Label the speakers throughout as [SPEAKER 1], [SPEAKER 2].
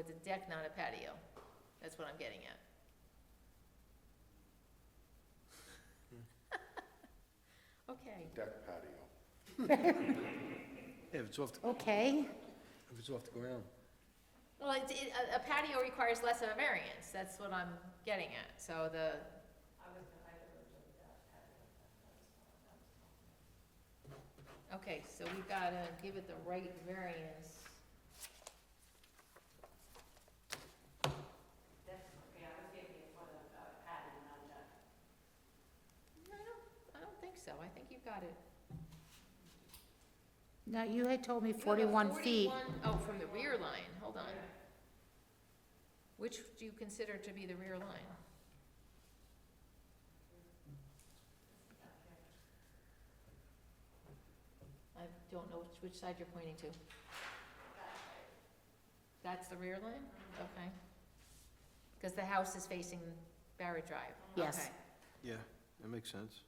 [SPEAKER 1] It's a deck, not a patio. That's what I'm getting at. Okay,
[SPEAKER 2] Deck patio.
[SPEAKER 3] Yeah, If it's off, the-
[SPEAKER 4] Okay,
[SPEAKER 3] if it's off the ground.
[SPEAKER 1] well, it's, it, a a patio requires less of a variance, that's what I'm getting at, so the. Okay, so we gotta give it the right variance.
[SPEAKER 5] That's, okay, I was thinking for the uh, padding, not the,
[SPEAKER 1] I don't, I don't think so, I think you've got it.
[SPEAKER 4] now you had told me
[SPEAKER 1] You have a
[SPEAKER 4] 41 feet.
[SPEAKER 1] 41 Oh, from the rear line, hold on. Which do you consider to be the rear line? I don't know which, which side you're pointing to. That's the rear line? Okay. Because the house is facing Barrett Drive?
[SPEAKER 4] Yes.
[SPEAKER 1] Okay.
[SPEAKER 3] Yeah, that makes sense.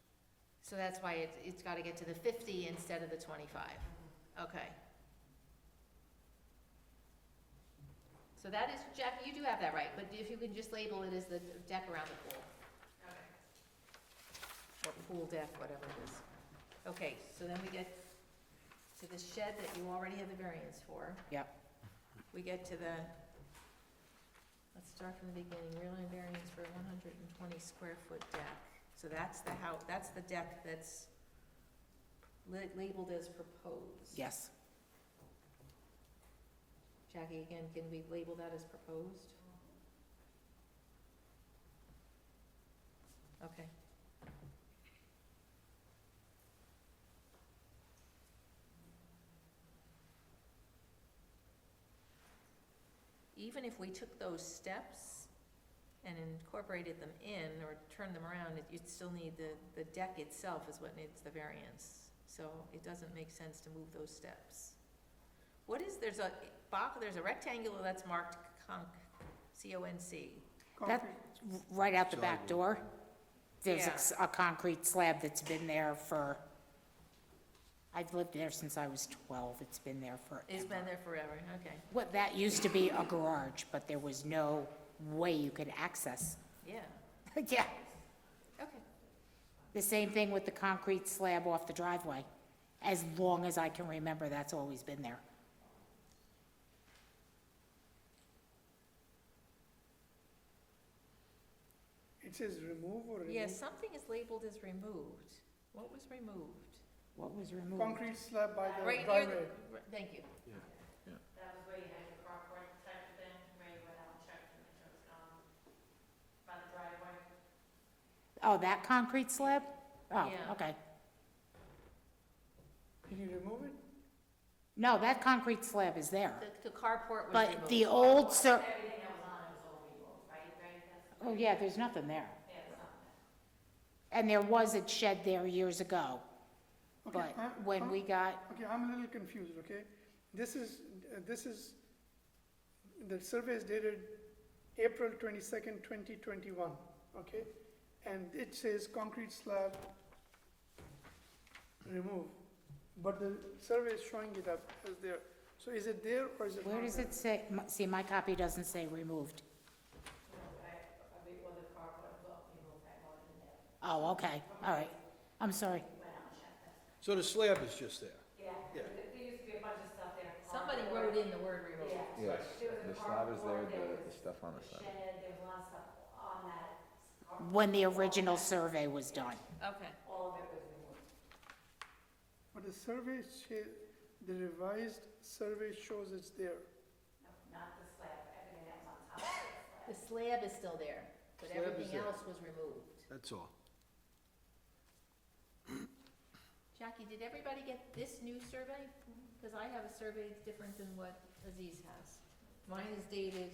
[SPEAKER 1] So that's why it's, it's gotta get to the fifty instead of the twenty-five. Okay. So that is, Jackie, you do have that right, but if you can just label it as the deck around the pool. Or pool deck, whatever it is. Okay, so then we get to the shed that you already have the variance for.
[SPEAKER 4] Yep.
[SPEAKER 1] We get to the, let's start from the beginning, rear line variance for one hundred and twenty square foot deck. So that's the how, that's the deck that's li- labeled as proposed.
[SPEAKER 4] Yes.
[SPEAKER 1] Jackie, again, can we label that as proposed? Okay. Even if we took those steps and incorporated them in or turned them around, it- you'd still need the, the deck itself is what needs the variance. So it doesn't make sense to move those steps. What is, there's a box, there's a rectangular that's marked conc, C-O-N-C.
[SPEAKER 4] That, right out the back door, there's a
[SPEAKER 1] Yeah.
[SPEAKER 4] s- a concrete slab that's been there for, I've lived there since I was 12. It's been there for,
[SPEAKER 1] It's been there forever, okay.
[SPEAKER 4] what, that used to be a garage, but there was no way you could access.
[SPEAKER 1] Yeah,
[SPEAKER 4] Yeah,
[SPEAKER 1] okay.
[SPEAKER 4] the same thing with the concrete slab off the driveway. As long as I can remember, that's always been there.
[SPEAKER 6] It says remove or remove?
[SPEAKER 1] Yeah, something is labeled as removed. What was removed?
[SPEAKER 4] What was removed?
[SPEAKER 6] Concrete slab by the
[SPEAKER 1] Right near
[SPEAKER 6] driveway.
[SPEAKER 1] the, right- thank you.
[SPEAKER 3] Yeah.
[SPEAKER 5] that was where you had your crop work type of thing, where you went out and checked and it was gone by the driveway.
[SPEAKER 4] Oh, that concrete slab?
[SPEAKER 1] Yeah.
[SPEAKER 4] Oh, okay.
[SPEAKER 6] Can you remove it?
[SPEAKER 4] No, that concrete slab is there,
[SPEAKER 1] The, the carport was removed.
[SPEAKER 4] but the old ser,
[SPEAKER 5] Everything that was on it was all removed, right, right? That's-
[SPEAKER 4] oh yeah, there's nothing there.
[SPEAKER 5] Yeah, it's not that.
[SPEAKER 4] And there was a shed there years ago,
[SPEAKER 6] Okay,
[SPEAKER 4] but
[SPEAKER 6] I'm-
[SPEAKER 4] when
[SPEAKER 6] I'm-
[SPEAKER 4] we got,
[SPEAKER 6] Okay, I'm a little confused, okay? This is, uh, this is, the survey is dated April twenty-second, twenty twenty-one, okay? And it says concrete slab remove, but the survey is showing it up as there. So is it there or is it not
[SPEAKER 4] where does
[SPEAKER 6] there?
[SPEAKER 4] it say, m- see, my copy doesn't say removed.
[SPEAKER 5] I mean, well, the crop work, well, people that wanted it there.
[SPEAKER 4] Oh, okay, all right. I'm sorry.
[SPEAKER 3] So the slab is just there.
[SPEAKER 5] Yeah, there there used to be a bunch of stuff there.
[SPEAKER 1] Somebody wrote in the word removed.
[SPEAKER 5] Yeah.
[SPEAKER 7] Yes,
[SPEAKER 5] There was a
[SPEAKER 7] the slab is there,
[SPEAKER 5] carport, there
[SPEAKER 7] the- the
[SPEAKER 5] was
[SPEAKER 7] stuff on the
[SPEAKER 5] a
[SPEAKER 7] side.
[SPEAKER 5] Shed, there was a lot of stuff on that. carport.
[SPEAKER 4] When the original survey was done.
[SPEAKER 1] Okay.
[SPEAKER 5] All of it was removed.
[SPEAKER 6] But the survey, sha- the revised survey shows it's there.
[SPEAKER 5] No, not the slab, everything that was on top of the slab.
[SPEAKER 1] The slab is still there, but
[SPEAKER 3] Slab is
[SPEAKER 1] everything
[SPEAKER 3] there.
[SPEAKER 1] else was removed.
[SPEAKER 3] That's all.
[SPEAKER 1] Jackie, did everybody get this new survey? Because I have a survey that's different than what Aziz has. Mine is dated,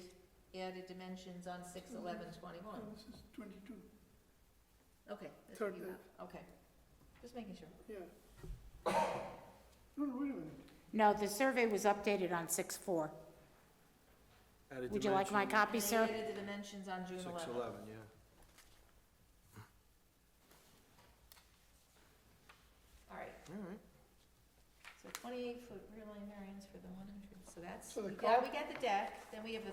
[SPEAKER 1] added dimensions on six eleven
[SPEAKER 6] Oh,
[SPEAKER 1] twenty-one.
[SPEAKER 6] This is twenty-two,
[SPEAKER 1] Okay, that's what you
[SPEAKER 6] Third.
[SPEAKER 1] have, okay. Just making sure.
[SPEAKER 6] yeah. No, no, wait a minute.
[SPEAKER 4] No, the survey was updated on 6/4.
[SPEAKER 3] Added
[SPEAKER 4] Would you like my
[SPEAKER 3] dimension,
[SPEAKER 4] copy,
[SPEAKER 1] And I
[SPEAKER 4] sir?
[SPEAKER 1] added the dimensions on June
[SPEAKER 3] Six
[SPEAKER 1] eleventh.
[SPEAKER 3] eleven, yeah.
[SPEAKER 1] All right,
[SPEAKER 3] All right.
[SPEAKER 1] so twenty-eight foot rear line variance for the one hundred, so that's,
[SPEAKER 6] So
[SPEAKER 1] we
[SPEAKER 6] the
[SPEAKER 1] got,
[SPEAKER 6] cul-
[SPEAKER 1] we got the deck, then we have the